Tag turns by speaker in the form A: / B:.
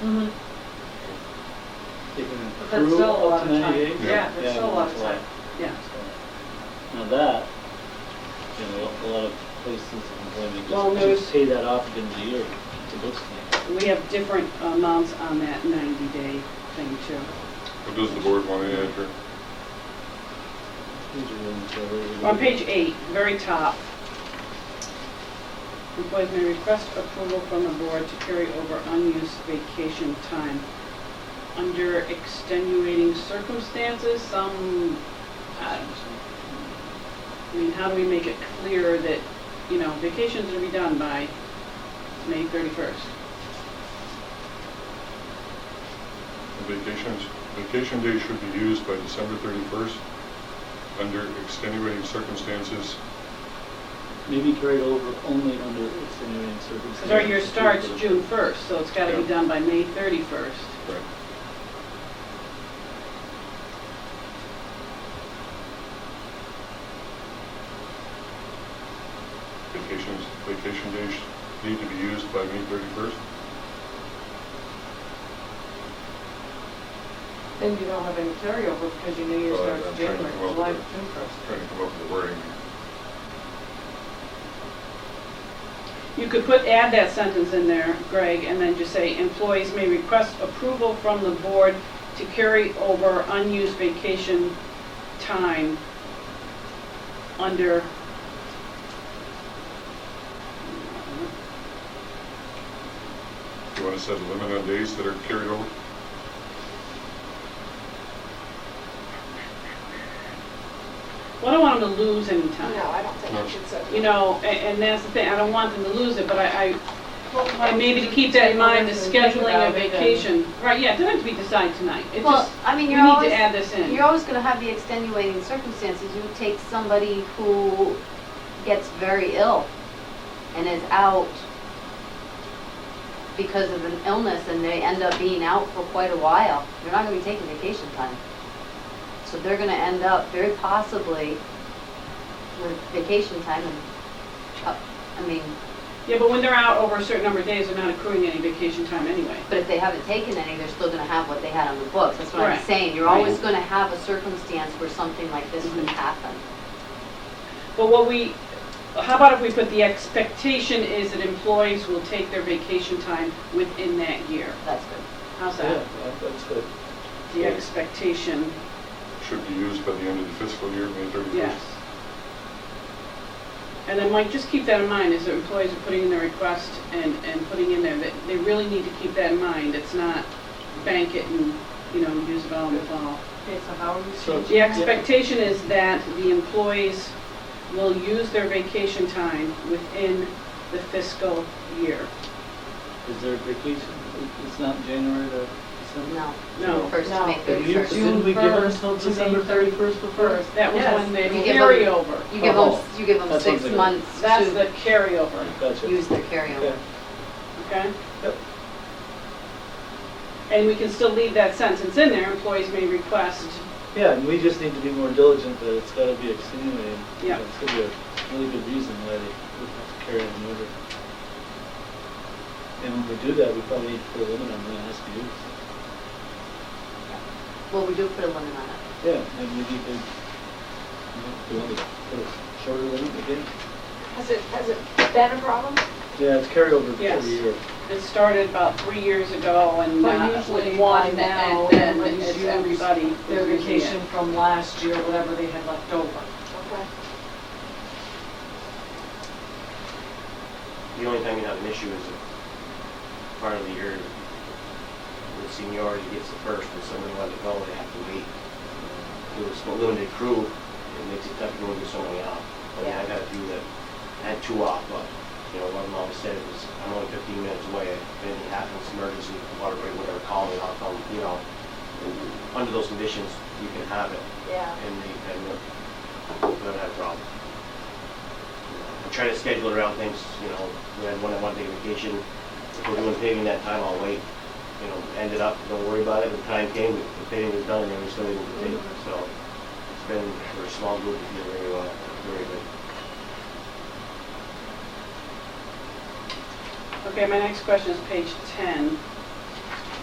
A: Mm-hmm. But
B: through
A: that's still a lot of time.
B: 98?
A: Yeah, that's still a lot of time,
B: that's
A: yeah.
B: So, Now that, you know, a lot of places in
A: Well,
B: employment
A: there
B: just
A: was-
B: pay that off at the end of the year to Brookstein.
A: We have different amounts on that 90-day thing too.
C: What does the board want to enter?
B: These are rooms that are-
A: On page eight, very top. Employees may request approval from the board to carry over unused vacation time. Under extenuating circumstances, some, uh, I mean, how do we make it clear that, you know, vacations are to be done by May 31st?
C: Vacations, vacation days should be used by December 31st under extenuating circumstances.
B: Maybe carried over only under extenuating circumstances.
A: Because our year starts June 1st, so it's got to be
C: Yeah.
A: done by May 31st.
C: Right. Vacations, vacation days need to be used by May 31st.
D: Then you don't have any carryover because your New Year
C: Well, I'm trying
D: starts
C: to
D: January,
C: come up
D: July,
C: with a-
D: June first.
C: Trying to come up with wording.
A: You could put, add that sentence in there, Greg, and then just say, employees may request approval from the board to carry over unused vacation time under
C: You want to set a limit on days that are carried over?
A: Well, I don't want them to lose any
E: No,
A: time.
E: I don't think I should say.
A: You know, a- and that's the thing, I don't want them to lose it, but I, I, and maybe to keep that in mind, the scheduling of vacation. Right, yeah, it doesn't have to be decided tonight. It
F: Well,
A: just,
F: I
A: we
F: mean,
A: need
F: you're always,
A: to add this in.
F: you're always gonna have the extenuating circumstances. You take somebody who gets very ill and is out because of an illness and they end up being out for quite a while. They're not gonna be taking vacation time. So they're gonna end up very possibly with vacation time and, uh, I mean,
A: Yeah, but when they're out over a certain number of days, they're not accruing any vacation time anyway.
F: But if they haven't taken any, they're still gonna have what they had on the books, that's what I'm
A: Correct.
F: saying, you're always gonna have a circumstance where something like this
A: Mhm.
F: would happen.
A: But what we, how about if we put the expectation is that employees will take their vacation time within that year?
F: That's good.
A: How's
B: Yeah,
A: that?
B: that- that's good.
A: The expectation,
C: Should be used by the end of the fiscal year, May 31st.
A: yes. And then Mike, just keep that in mind, is that employees are putting in their request and, and putting in there, that they really need to keep that in mind. It's not bank it and, you know, use it all in the fall.
D: Okay, so how are you
B: So-
D: changing?
A: The expectation is that the employees will use their vacation time within the fiscal year.
B: Is there vacation? It- It's not January to December?
F: No,
A: No.
F: first to
D: No.
F: May
B: Did you-
F: thirty-first. You
B: Didn't we give
D: June
B: ourselves
D: first to May
B: December 31st before?
D: First.
A: That was
D: Yes.
A: when the
F: You give them-
A: carryover,
F: give them,
B: Oh,
F: you give them
B: that's
F: six
B: something.
F: months
A: that's the
F: to
A: carryover,
B: Gotcha.
F: use their
B: Okay.
F: carryover.
A: okay?
B: Yep.
A: And we can still leave that sentence in there, employees may request,
B: Yeah, and we just need to be more diligent that it's gotta be extenuating.
A: Yeah.
B: It's gonna be a really good reason why they would have to carry it in order. And when we do that, we probably need to put a limit on when it has to be used.
F: Well, we do put a limit on it.
B: Yeah, and maybe you could, you know, do you want to put a shorter limit again?
E: Has it, has it been a problem?
B: Yeah, it's carryover for
A: Yes.
B: a year.
A: it started about three years ago and
D: But
A: not
D: usually
A: with
D: by
A: one, and
D: now,
A: then
D: everybody's
A: it's
D: used
A: everybody.
D: Their
A: using it.
D: vacation from last year, whatever they had left over.
E: Okay.
G: The only time you have an issue is if part of the year, the seniority gets the first, and somebody wants to go, they have to wait. With a small limited crew, it makes it tough to go get somebody out. I mean, I got a few that had two off, but, you know, one of them always said it was, I'm only fifteen minutes away, if anything happens, emergency, water break, whatever, call me, I'll come, you know. And Under those conditions, you can have it,
E: Yeah.
G: and they, and we don't have a problem. I try to schedule around things, you know, we had one, I want to take a vacation, if we're doing paving that time, I'll wait. You know, ended up, don't worry about it, the time came, the paving was done, and then we still didn't continue, so it's been, for a small group, it's been very, well, very good.
A: Okay, my next question is page 10.